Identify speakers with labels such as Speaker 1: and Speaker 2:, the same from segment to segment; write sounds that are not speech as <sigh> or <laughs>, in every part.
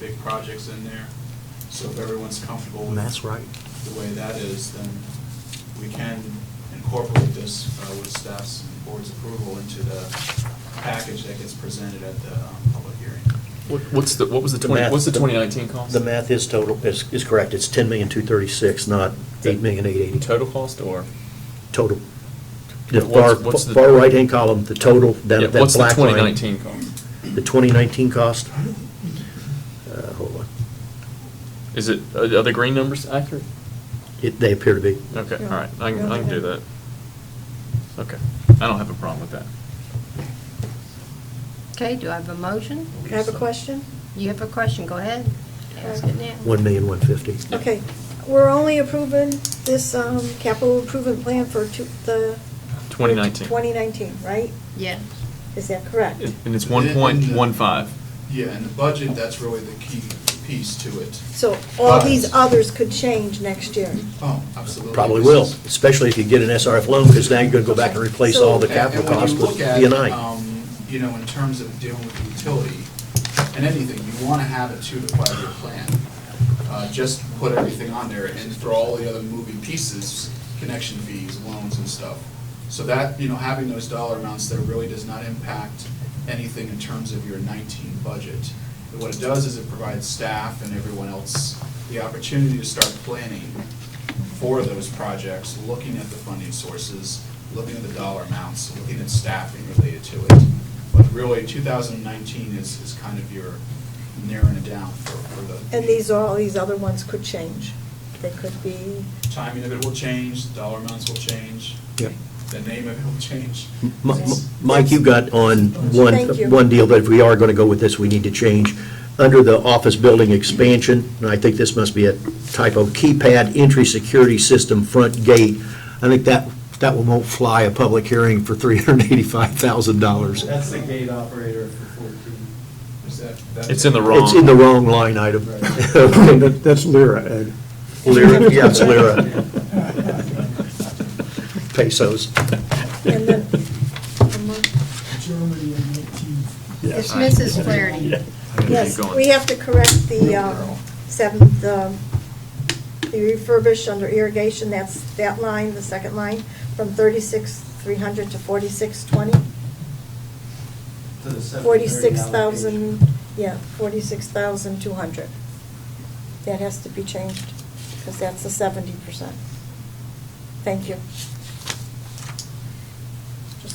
Speaker 1: big projects in there. So if everyone's comfortable with.
Speaker 2: And that's right.
Speaker 1: The way that is, then we can incorporate this uh, with staff's and board's approval into the package that gets presented at the um, public hearing.
Speaker 3: What- What's the, what was the
Speaker 2: The
Speaker 3: 20,
Speaker 2: math-
Speaker 3: what's the
Speaker 2: the-
Speaker 3: 2019 cost?
Speaker 2: The math is total, is, is correct. It's ten million, two thirty-six, not eight million, eight eighty.
Speaker 3: Total cost or?
Speaker 2: Total. The far,
Speaker 3: What's- what's the-
Speaker 2: far right-hand column, the total,
Speaker 3: Yeah,
Speaker 2: that, that black line.
Speaker 3: What's the 2019 cost?
Speaker 2: The 2019 cost? Uh, Hold on.
Speaker 3: Is it, are are the green numbers accurate?
Speaker 2: It, they appear to be.
Speaker 3: Okay, all
Speaker 4: Yeah.
Speaker 3: right, I can,
Speaker 4: Yeah,
Speaker 3: I can do
Speaker 4: okay.
Speaker 3: that. Okay, I don't have a problem with that.
Speaker 5: Okay, do I have a motion?
Speaker 4: I have a question?
Speaker 5: You have a question, go ahead. Ask it now.
Speaker 2: 1,150,000.
Speaker 4: Okay, we're only approving this um, capital improvement plan for two- the...
Speaker 3: 2019.
Speaker 4: 2019, right?
Speaker 5: Yes.
Speaker 4: Is that correct?
Speaker 3: And and it's
Speaker 1: And then-
Speaker 3: 1.15.
Speaker 1: Yeah, and the budget, that's really the key piece to it.
Speaker 4: So all these
Speaker 1: But-
Speaker 4: others could change next year?
Speaker 1: Oh, absolutely.
Speaker 2: Probably
Speaker 1: This
Speaker 2: will,
Speaker 1: is-
Speaker 2: especially if you get an SRF loan, because now you're going to go back and replace all the
Speaker 4: So-
Speaker 2: capital
Speaker 1: And- and when
Speaker 2: costs
Speaker 1: you
Speaker 2: with
Speaker 1: look at,
Speaker 2: BNI.
Speaker 1: um, You know, in terms of dealing with utility and anything, you want to have a two to five-year plan. Uh, Just put everything on there and for all the other moving pieces, connection fees, loans and stuff. So that, you know, having those dollar amounts there really does not impact anything in terms of your 19 budget. But What it does is it provides staff and everyone else the opportunity to start planning for those projects, looking at the funding sources, looking at the dollar amounts, looking at staffing related to it. But really, 2019 is, is kind of your narrowing it down for, for the.
Speaker 4: And these, all these other ones could change? They could be,
Speaker 1: Timing of it will change, the dollar amounts will change.
Speaker 2: Yep.
Speaker 1: The name of it will change.
Speaker 2: M- M- Mike, you got on one,
Speaker 4: Thank you.
Speaker 2: one deal, but if we are going to go with this, we need to change. Under the office building expansion, and I think this must be a typo, keypad entry security system front gate. I think that, that one won't fly a public hearing for $385,000.
Speaker 6: That's the gate operator for 14.
Speaker 1: Is that- that-
Speaker 3: It's in the wrong.
Speaker 2: It's in the wrong line item. <laughs>
Speaker 7: Okay, that- That's Lyra, Ed.
Speaker 2: Lira, yeah, it's
Speaker 3: <laughs>
Speaker 7: <laughs>
Speaker 2: lira, pesos.
Speaker 4: and then, um,
Speaker 8: Germany in 19.
Speaker 5: It's Mrs. Flaherty.
Speaker 4: yes,
Speaker 3: going.
Speaker 4: we have to correct the um, seventh, um, the refurbish under irrigation, that's that line, the second line, from 36,300 to 4620?
Speaker 6: To the 730
Speaker 4: Forty-six
Speaker 6: allocation.
Speaker 4: thousand, yeah, forty-six thousand two hundred. That has to be changed, because that's the seventy percent. Thank you.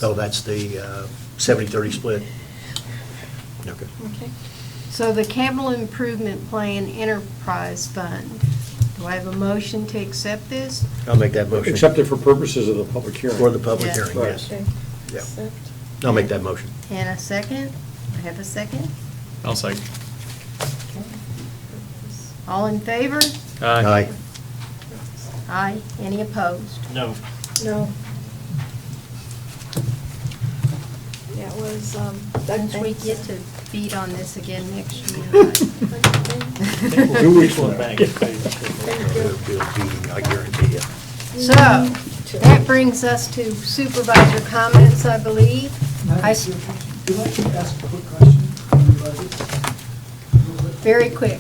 Speaker 2: Oh, that's the uh, 70-30 split. Okay.
Speaker 4: Okay.
Speaker 5: So the capital improvement plan enterprise fund, do I have a motion to accept this?
Speaker 2: I'll make that motion.
Speaker 7: Except for purposes of the public hearing.
Speaker 2: For the public
Speaker 5: Yeah.
Speaker 2: hearing,
Speaker 7: Right.
Speaker 2: yes.
Speaker 4: Okay.
Speaker 2: Yeah.
Speaker 4: Accept.
Speaker 2: I'll make that motion.
Speaker 5: And a second? I have a second?
Speaker 3: I'll say,
Speaker 5: All in favor?
Speaker 3: aye.
Speaker 5: Aye. Any opposed?
Speaker 6: No.
Speaker 4: No. That was, um.
Speaker 5: Once we get to beat on this again next year.
Speaker 7: <laughs> Two weeks from now.
Speaker 4: Thank you.
Speaker 2: It'll be a beating, I guarantee you.
Speaker 5: So, that brings us to supervisor comments, I believe. I s-
Speaker 8: Would you like to ask a quick question on the budget?
Speaker 5: Very quick.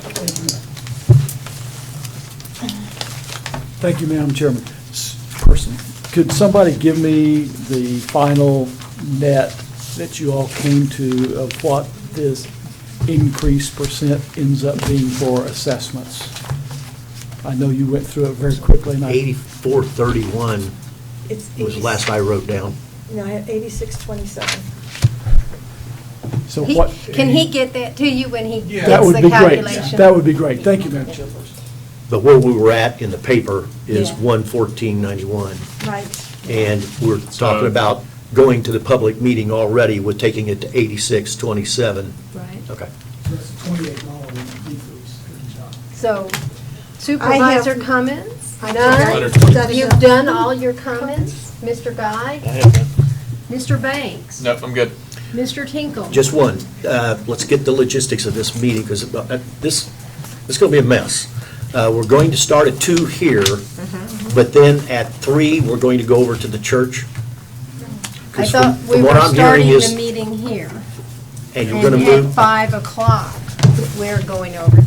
Speaker 8: Thank you, Madam Chairman. S- Person, could somebody give me the final net that you all came to of what this increase percent ends up being for assessments? I know you went through it very quickly, and I...
Speaker 2: 8431
Speaker 4: It's
Speaker 2: was the last I wrote down.
Speaker 4: No, eighty-six twenty-seven.
Speaker 8: So
Speaker 5: He-
Speaker 8: what...
Speaker 5: Can he get that to you when he
Speaker 1: Yeah.
Speaker 8: That
Speaker 5: gets
Speaker 8: would
Speaker 5: the
Speaker 8: be great.
Speaker 5: calculation?
Speaker 8: That would be great. Thank you, Madam Chair.
Speaker 2: But where we were at in the paper is
Speaker 4: Yeah.
Speaker 2: 11491.
Speaker 4: Right.
Speaker 2: And we're talking about going to the public meeting already, we're taking it to 8627.
Speaker 5: Right.
Speaker 2: Okay.
Speaker 8: That's a $28 decrease. Good job.
Speaker 5: So supervisor comments?
Speaker 4: I
Speaker 5: None?
Speaker 4: think I studied
Speaker 5: You've
Speaker 4: up.
Speaker 5: done all your comments? Mr. Guy? Mr. Banks?
Speaker 3: No, I'm good.
Speaker 5: Mr. Tinkle?
Speaker 2: Just one, Uh, let's get the logistics of this meeting, because this, this is going to be a mess. Uh, We're going to start at two here,
Speaker 5: Mm-hmm.
Speaker 2: but then at three, we're going to go over to the church.
Speaker 5: I
Speaker 2: 'Cause
Speaker 5: thought
Speaker 2: from-
Speaker 5: we
Speaker 2: from what
Speaker 5: were
Speaker 2: I'm hearing
Speaker 5: starting
Speaker 2: is-
Speaker 5: the meeting here.
Speaker 2: And you're going to
Speaker 5: and At
Speaker 2: move,
Speaker 5: five o'clock. we're going over